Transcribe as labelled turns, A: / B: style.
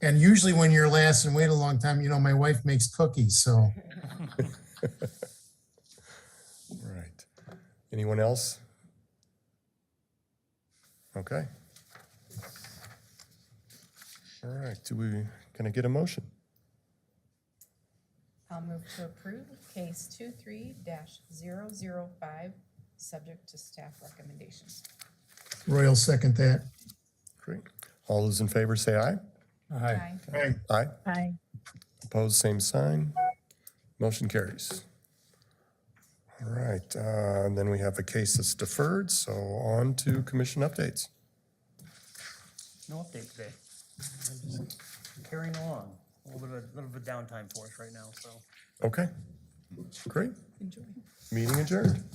A: And usually when you're last and wait a long time, you know, my wife makes cookies, so.
B: Right. Anyone else? Okay. All right, do we, can I get a motion?
C: I'll move to approve case 23-005, subject to staff recommendations.
A: Roy will second that.
B: Great. All those in favor say aye.
C: Aye.
A: Right.
B: Aye.
D: Aye.
B: Opposed, same sign. Motion carries. All right, uh, and then we have a case that's deferred, so on to commission updates.
E: No update today. I'm just Carrying along, a little bit of, little bit of downtime for us right now, so.
B: Okay, great. Meeting adjourned.